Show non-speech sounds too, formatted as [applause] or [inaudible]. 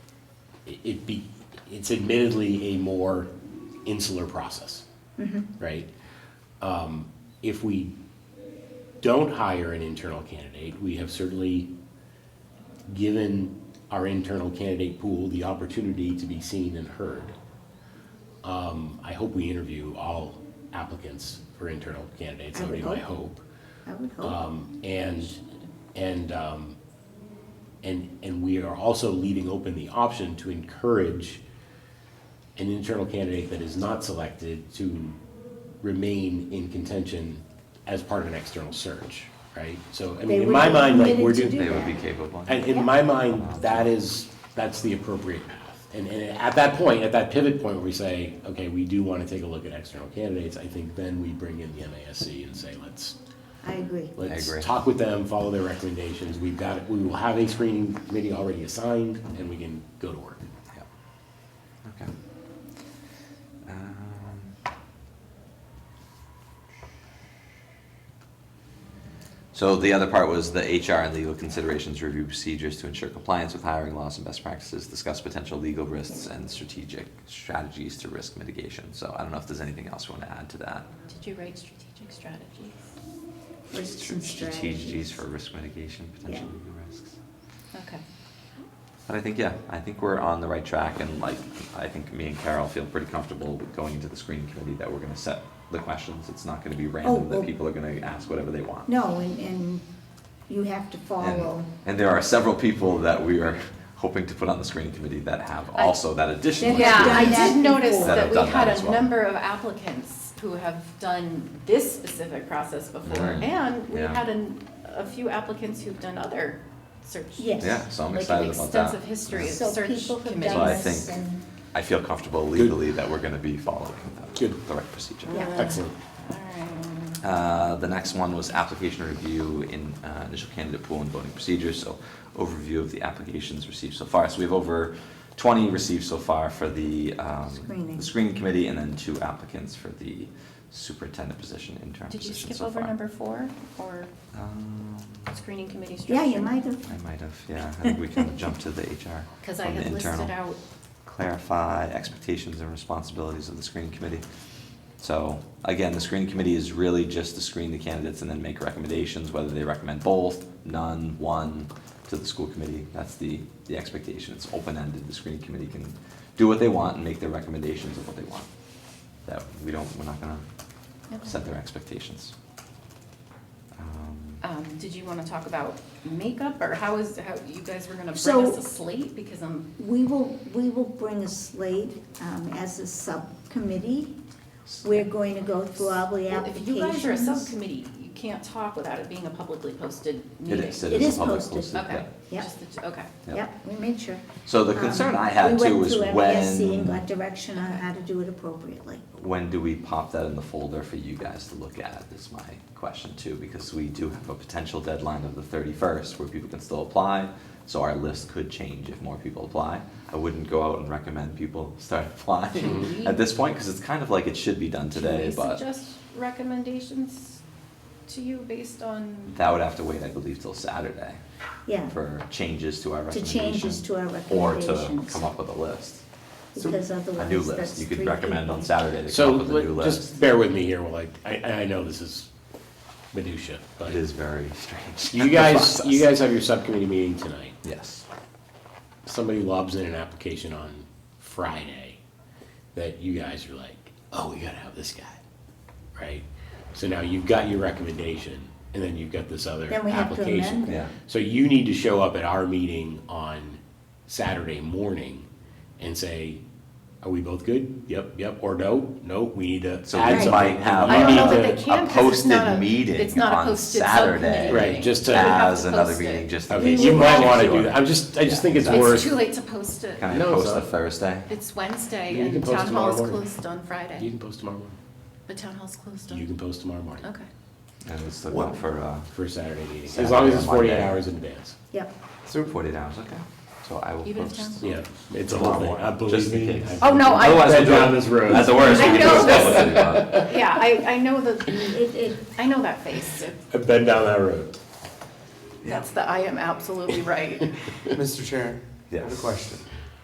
it be, it's admittedly a more insular process, right? Um, If we don't hire an internal candidate, we have certainly given our internal candidate pool the opportunity to be seen and heard. Um, I hope we interview all applicants for internal candidates, I that would be would my hope. hope. I would Uh, hope. Um, and, and, um, and, and we are also leaving open the option to encourage an internal candidate that is not selected to remain in contention as part of an external search, right? So, I They mean, in would my be mind, like, permitted we're to doing. do They would be that. capable. And in my mind, that is, that's the appropriate path. And, and at that point, at that pivot point where we say, okay, we do want to take a look at external candidates, I think then we bring in the MASC and say, let's, I agree. let's agree. talk with them, follow their recommendations. We've got, we will have a screening committee already assigned and we can go to work. Yeah. Okay. Um, So the other part was the HR and legal considerations review procedures to ensure compliance with hiring laws and best practices, discuss potential legal risks and strategic strategies to risk mitigation. So I don't know if there's anything else you want to add to that. Did you write strategic strategies? Risks and Strategies for risk mitigation, potential Yeah. legal risks. Okay. But I think, yeah, I think we're on the right track and like, I think me and Carol feel pretty comfortable with going into the screening committee that we're gonna set the questions. It's not gonna be Oh, random, well- that people are gonna ask whatever they want. No, and, and you have to follow. And, and there are several people that we are [laughs] hoping to put on the screening committee that have I- also that additional That Yeah, have I experience. done did that notice before. That have that we done had that as a well. number of applicants who have done this specific process before, Mm. and we Yeah. had an, a few applicants who've done other search. Yes. Yeah, so I'm Like an excited about that. extensive history of Yeah. So Search people have committees. So done I this think- and, I feel comfortable legally that we're gonna be following the, Good. the right procedure. Yeah. Excellent. Alright. Uh, the next one was application review in uh, initial candidate pool and voting procedures. So overview of the applications received so far. So we have over 20 received so far for the, um, Screening. the screening committee and then two applicants for the superintendent position, interim Did you position skip so over far. number four, or Um, screening committee yeah, structure? you might have, I might have, yeah. I think we kind of jumped to the HR. [laughs] Cause I from the had listed internal. out, clarify expectations and responsibilities of the screening committee. So again, the screening committee is really just to screen the candidates and then make recommendations, whether they recommend both, none, one, to the school committee. That's the, the expectation. It's open-ended. The screening committee can do what they want and make their recommendations of what they want. That, we don't, we're not gonna Okay. set their expectations. Um, um, did you wanna talk about makeup, or how is, how, you guys were gonna bring So- us a slate, because I'm, we will, we will bring a slate um, as a subcommittee. We're going to go through all the Well, If you guys are a applications. subcommittee, you can't talk without it being a publicly posted It meeting. is, it It is is a public posted. posted, Okay. Yeah. Just the two- Okay. yeah. Yep, we made sure. So the concern Um, I had too was We when. went through MASC and got direction on how to do it appropriately. When do we pop that in the folder for you guys to look at is my question too, because we do have a potential deadline of the thirty-first where people can still apply. So our list could change if more people apply. I wouldn't go out and recommend people [laughs] start Should applying we- at this point, because it's kind of like it should be done today, Can we but suggest recommendations to you based on? that would have to wait, I believe, till Saturday Yeah, for changes to our To recommendation. changes to our Or to recommendations. come up with a list, because a otherwise new that's list. You could three recommend on people. Saturday to So come up with a new let- list. just bear with me here, well, like, I, I know this is minutia, but It is very strange. you [laughs] guys, process. you guys have your subcommittee meeting tonight. Yes. somebody lobs in an application on Friday that you guys are like, oh, we gotta have this guy, right? So now you've got your recommendation, and then you've got this other Then we have to amend application. it. Yeah. So you need to show up at our meeting on Saturday morning and say, are we both good? Yep, yep, or no, no, we need to add So something. we might have We I don't need know to- that they can, a 'cause it's not posted a- meeting it's not a on posted Saturday. subcommittee Right, meeting. just to- We have As to another post meeting, it. just in Okay, case. you might wanna Sure. do that, I'm just, I just Yeah. think it's It's worth. It's too late to post it. Can I No, it's post a not. Thursday? It's Wednesday You can and post town hall tomorrow is morning. closed on You Friday. can post tomorrow morning, The town hall's closed you on, can post tomorrow morning. [laughs] okay. And it's still going for, uh, for a Saturday meeting, as Saturday long as or it's forty-eight Monday. hours in advance. Yep. so 48 hours, okay. So I will Even if post. town- Yeah, it's a Tomorrow whole thing. I morning, believe just in me. case. I- Oh, no, I- Otherwise, Been we'll do down it. this road. At the worst, we I can do know a this. split but Yeah, I, I know the, It, it, I know that face. It- I've been down that road. That's the, I am absolutely right. Mr. Chair, I have a Yes. question.